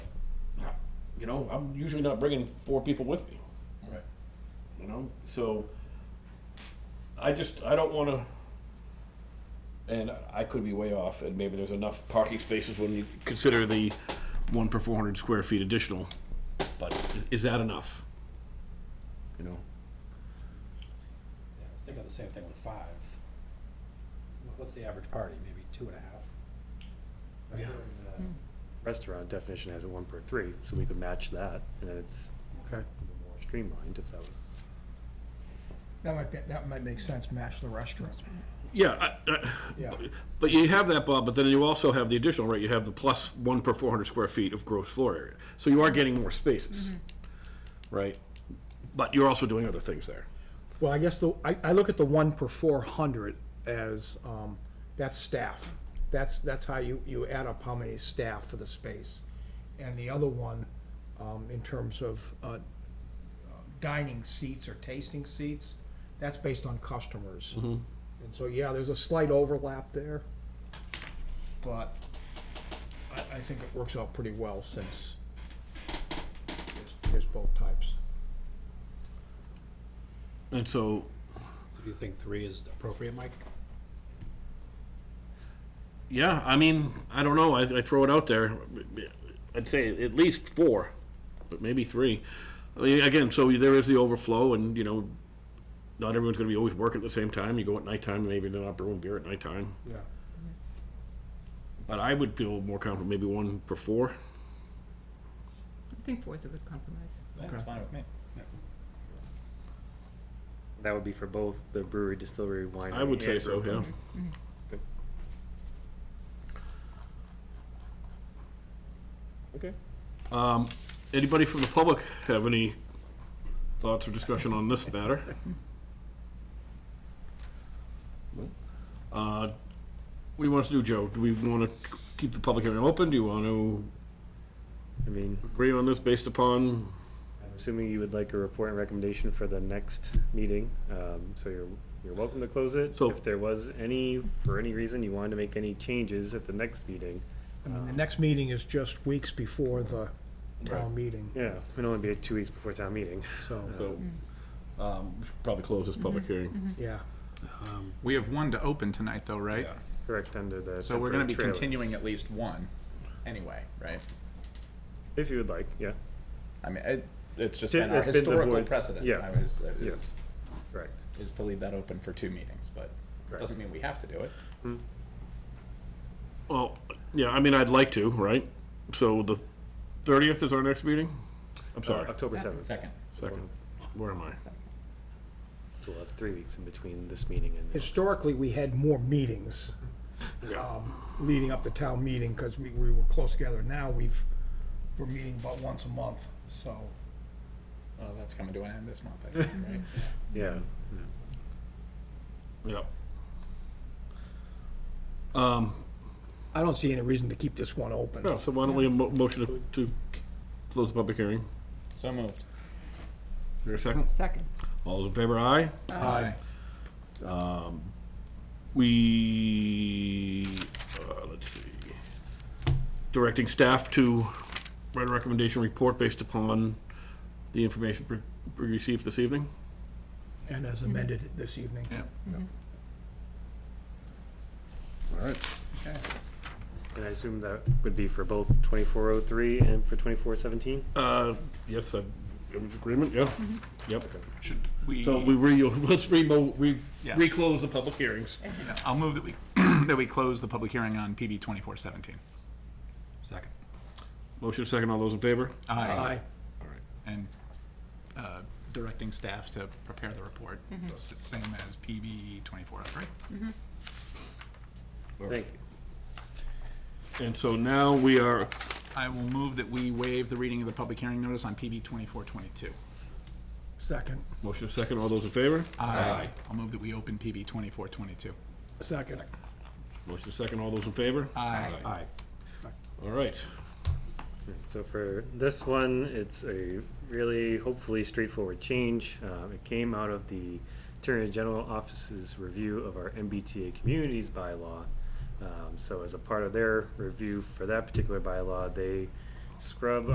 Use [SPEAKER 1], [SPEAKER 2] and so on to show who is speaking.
[SPEAKER 1] You know, I'm usually not bringing four people with me.
[SPEAKER 2] Right.
[SPEAKER 1] You know, so I just I don't want to. And I could be way off, and maybe there's enough parking spaces when you consider the one per 400 square feet additional. But i- is that enough? You know,
[SPEAKER 3] Yeah, I was thinking the same thing with five. Wh- What's the average party, maybe two and a uh, half?
[SPEAKER 4] Yeah. Restaurant definition has a one per three, so we could match that, and then it's
[SPEAKER 3] Okay.
[SPEAKER 4] more streamlined if that was.
[SPEAKER 5] That might, be- that might make sense, match the restaurant.
[SPEAKER 1] yeah, I, I,
[SPEAKER 5] Yeah,
[SPEAKER 1] But you have that, Bob, but then you also have the additional, right, you have the plus one per four hundred square feet of gross floor area. So you are getting more spaces, right? But you're also doing other things there.
[SPEAKER 6] Well, I guess the, I, I look at the one per four hundred as, um, that's staff. That's, that's how you, you add up how many staff for the space. And the other one, um, in terms of, uh, dining seats or tasting seats, that's based on customers. And so, yeah, there's a slight overlap there. But I, I think it works out pretty well since there's, there's both types.
[SPEAKER 1] And so,
[SPEAKER 3] Do you think three is appropriate, Mike?
[SPEAKER 1] yeah, I mean, I don't know, I, I throw it out there. I'd say at least four, but maybe three. I mean, Again, so there is the overflow and, you know, not everyone's gonna be always working at the same time. You go at nighttime, maybe they're not brewing beer at nighttime.
[SPEAKER 6] Yeah.
[SPEAKER 1] But I would feel more comfortable, maybe one per four.
[SPEAKER 7] I think four is a good compromise.
[SPEAKER 3] That's fine with me.
[SPEAKER 4] That would be for both the brewery, distillery, winery.
[SPEAKER 1] I would say
[SPEAKER 4] and
[SPEAKER 1] so,
[SPEAKER 4] brew
[SPEAKER 1] yeah.
[SPEAKER 4] pubs. Okay.
[SPEAKER 1] Um, anybody from the public have any thoughts or discussion on this matter? Uh, what do you want us to do, Joe? Do we want to keep the public hearing open? Do you want to
[SPEAKER 4] I mean,
[SPEAKER 1] agree on this based upon?
[SPEAKER 4] assuming you would like a report and recommendation for the next meeting, um, so you're, you're welcome to close it.
[SPEAKER 1] So-
[SPEAKER 4] If there was any, for any reason, you wanted to make any changes at the next meeting,
[SPEAKER 6] I mean, the next meeting is just weeks before the town meeting,
[SPEAKER 4] yeah, it'd only be two weeks before town meeting.
[SPEAKER 6] so,
[SPEAKER 1] So, um, we should probably close this public hearing.
[SPEAKER 6] yeah.
[SPEAKER 2] We have one to open tonight, though, right?
[SPEAKER 1] Yeah.
[SPEAKER 4] Correct, under the.
[SPEAKER 2] So we're gonna
[SPEAKER 4] temporary
[SPEAKER 2] be
[SPEAKER 4] trailers.
[SPEAKER 2] continuing at least one, anyway, right?
[SPEAKER 4] If you would like, yeah,
[SPEAKER 2] I mean, it, it's just
[SPEAKER 4] Ti-
[SPEAKER 2] been our
[SPEAKER 4] it's been the
[SPEAKER 2] historical
[SPEAKER 4] board's-
[SPEAKER 2] precedent.
[SPEAKER 4] yeah.
[SPEAKER 2] I was, I
[SPEAKER 4] Yeah.
[SPEAKER 2] was-
[SPEAKER 4] correct.
[SPEAKER 2] is to leave that open for two meetings, but
[SPEAKER 4] Correct.
[SPEAKER 2] doesn't mean we have to do it.
[SPEAKER 1] Well, yeah, I mean, I'd like to, right? So the thirtieth is our next meeting? I'm
[SPEAKER 4] Uh,
[SPEAKER 1] sorry,
[SPEAKER 4] October
[SPEAKER 7] Seven.
[SPEAKER 4] seventh, so
[SPEAKER 2] Second,
[SPEAKER 1] second. Where am I?
[SPEAKER 4] we'll have three weeks in between this meeting and. the next.
[SPEAKER 6] Historically, we had more meetings um, leading up to town meeting, because we, we were close together. Now, we've, we're meeting about once a month, so.
[SPEAKER 2] well, Oh, that's coming to an end this month, I think, right?
[SPEAKER 4] Yeah,
[SPEAKER 1] Yep. Um,
[SPEAKER 6] I don't see any reason to keep this one open.
[SPEAKER 1] No, Oh, so why don't we mo- motion to- to c- close the public hearing?
[SPEAKER 2] So moved.
[SPEAKER 1] Is there a second?
[SPEAKER 7] Second.
[SPEAKER 1] All those in favor, aye?
[SPEAKER 2] Aye.
[SPEAKER 1] We, uh, let's see, directing staff to write a recommendation report based upon the information pre- we received this evening?
[SPEAKER 6] And as amended this evening.
[SPEAKER 2] Yeah.
[SPEAKER 1] All right.
[SPEAKER 4] and I assume that would be for both twenty-four oh three and for twenty-four seventeen?
[SPEAKER 1] Uh, yes, I'm in agreement, yeah, yep.
[SPEAKER 2] Should we?
[SPEAKER 1] So we re, let's remo, re,
[SPEAKER 2] Yeah.
[SPEAKER 1] reclose the public hearings.
[SPEAKER 2] I'll move that we, that we close the public hearing on PB twenty-four seventeen.
[SPEAKER 3] Second.
[SPEAKER 1] Motion second, all those in favor?
[SPEAKER 6] Aye.
[SPEAKER 2] And, uh, directing staff to prepare the report, s- same as PB twenty-four oh three.
[SPEAKER 4] Thank you.
[SPEAKER 1] And so now we are
[SPEAKER 2] I will move that we waive the reading of the public hearing notice on PB twenty-four twenty-two.
[SPEAKER 6] Second,
[SPEAKER 1] Motion second, all those in favor?
[SPEAKER 2] Aye. I'll move that we open PB twenty-four twenty-two.
[SPEAKER 6] second.
[SPEAKER 1] Motion second, all those in favor?
[SPEAKER 2] Aye.
[SPEAKER 6] Aye.
[SPEAKER 1] All right.
[SPEAKER 4] So for this one, it's a really hopefully straightforward change. Um, it came out of the Attorney General Office's review of our MBTA communities bylaw. Um, so as a part of their review for that particular bylaw, they scrub